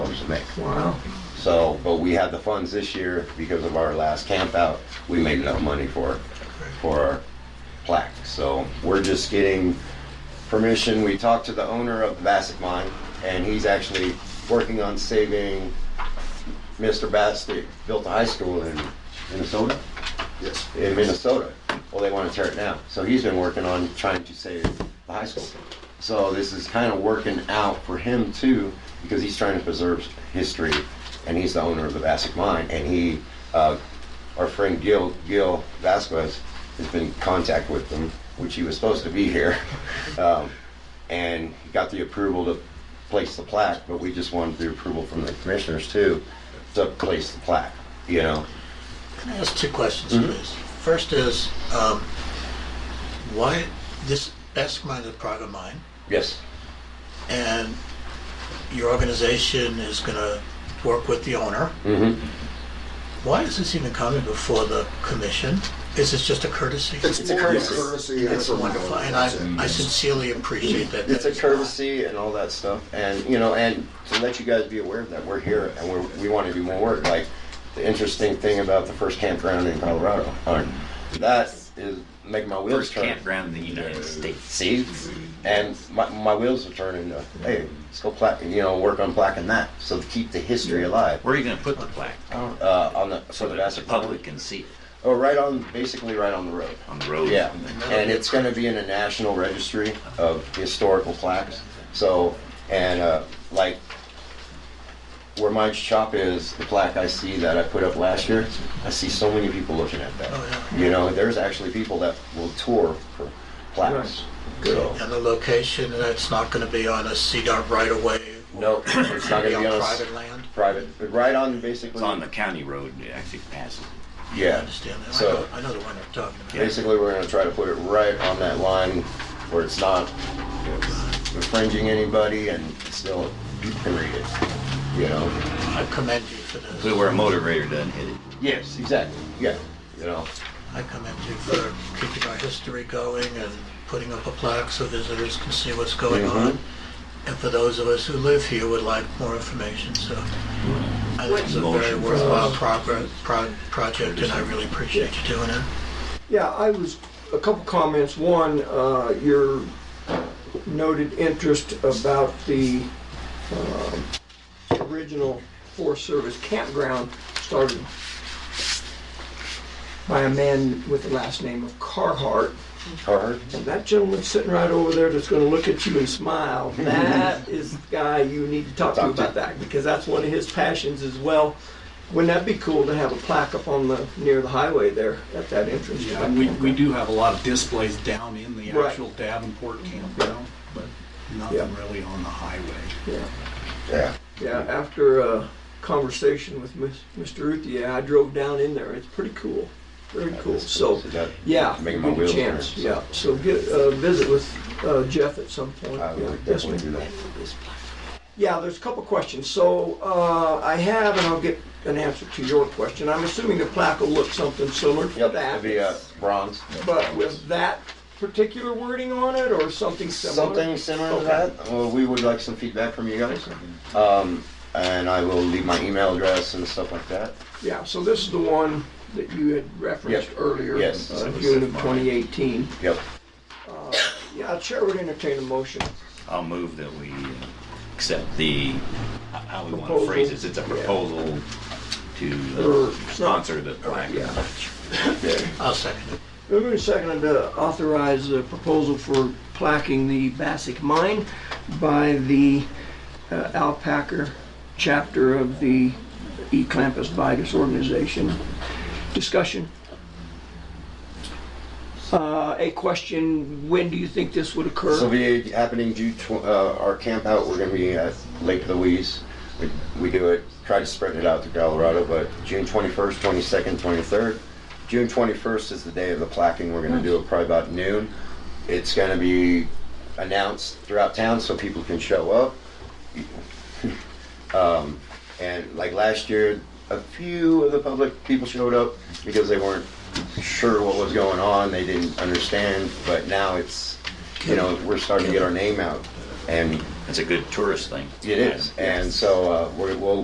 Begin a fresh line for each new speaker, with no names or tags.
make.
Wow.
So, but we had the funds this year because of our last camp out. We made enough money for, for our plaque. So we're just getting permission. We talked to the owner of the Bassett Mine and he's actually working on saving Mr. Bassett built a high school in Minnesota,
Yes.
in Minnesota. Well, they want to tear it down. So he's been working on trying to save the high school. So this is kind of working out for him too, because he's trying to preserve history, and he's the owner of the Vasquez mine. And he, uh, our friend Gil Gil Vasquez, has been in contact with them, which he was supposed to be here, um, and he got the approval to place the plaque. But we just wanted the approval from the commissioners too to place the plaque. You know,
Can I ask two questions,
Mm-hmm.
please? First is, um, why, this Basque Mine is a private mine,
yes,
and your organization is gonna work with the owner.
Mhm.
Why is this even coming before the commission? Is this just a courtesy?
It's
a
more of
courtesy.
courtesy. and
It's
a window.
wonderful, and
That's it.
I I sincerely appreciate that.
it's a
That is
courtesy and all that stuff and you know and to let you guys be aware of that we're here and we're, we want to do more work like the interesting thing about the first campground in colorado or, that is making my wheels
First
turn
campground in the United States.
see and my, my wheels are turning to, hey let's go plaque you know work on plaquing that so to keep the history alive
Where are you going to put the plaque?
uh, on the so
So
the
that the
Vassar
public can see it
oh right on basically right on the road
on the road.
Yeah, and it's going to be in a national registry of historical plaques. So, and uh, like where my shop is, the plaque I see that I put up last year, I see so many people looking at that.
Oh,
You know, there's actually people that will tour for plaques. So,
And the location, and it's not gonna be on a CDOT right of way,
no, it's not
be
going to
on
be on a s-
private land?
private, but right on basically.
It's on the county road, it actually passes.
I
Yeah,
understand that. I
So-
know, I know the one you're talking about.
Basically, we're gonna try to put it right on that line where it's not infringing anybody and still you can read it, you know?
I commend you for this.
So where a motor grader doesn't hit it.
Yes, exactly, yeah, you know,
I commend you for keeping our history going and putting up a plaque so visitors can see what's going
Mhm.
on. And for those of us who live here would like more information, so I think it's a very
Motion for
worthwhile
us.
progress, pro- project and I really appreciate you doing it.
Yeah, I was, a couple comments. One, uh, your noted interest about the um, original Forest Service campground started by a man with the last name of Carhart.
car,
And that gentleman sitting right over there that's gonna look at you and smile, that is the guy you need to talk to
Talk to.
about that, because that's one of his passions as well. Wouldn't that be cool to have a plaque up on the, near the highway there, at that entrance? to
Yeah,
that
and we, we
campground?
do have a lot of displays down in the
Right.
actual Davenport campground, but nothing
Yeah.
really on the highway.
Yeah.
yeah.
Yeah, after a conversation with Ms- Mr. Uthia, I drove down in there. It's pretty cool. Very cool. So,
that-
yeah,
Making my
good
wheels turn.
chance. Yeah, so get, uh, visit with uh, Jeff at some point.
I
Yeah,
would
yes,
definitely do
ma'am.
that.
Yeah, there's a couple questions. So, uh, I have, and I'll get an answer to your question. I'm assuming the plaque will look something similar to
Yep, it'd be uh,
that.
bronze.
But with that particular wording on it or something similar?
Something similar to that. Well, we would like some feedback from you guys. Um, and I will leave my email address and stuff like that.
Yeah, so this is the one that you had referenced
Yep.
earlier.
Yes.
uh, June of 2018.
Yep.
Yeah, Chair would entertain a motion.
I'll move that we uh, accept the, how we want to phrase this, it's a proposal to
Or
uh,
it's not-
sponsor the plaque.
Yeah.
I'll second it.
Moving to second to authorize the proposal for placking the Bassic Mine by the uh, Alpaca chapter of the E. Clampus Vitus organization. Discussion. Uh, A question, when do you think this would occur?
So be happening June tw- uh, our camp out. We're gonna be at Lake Louise. We, we do it. Try to spread it out to Colorado, but June 21st, 22nd, 23rd. June 21st is the day of the plaquing. We're gonna do it probably about noon. It's gonna be announced throughout town so people can show up. um, and like last year, a few of the public people showed up because they weren't sure what was going on. They didn't understand. But now it's you know, we're starting to get our name out, and
It's a good tourist thing.
it is. And so uh, we're, we'll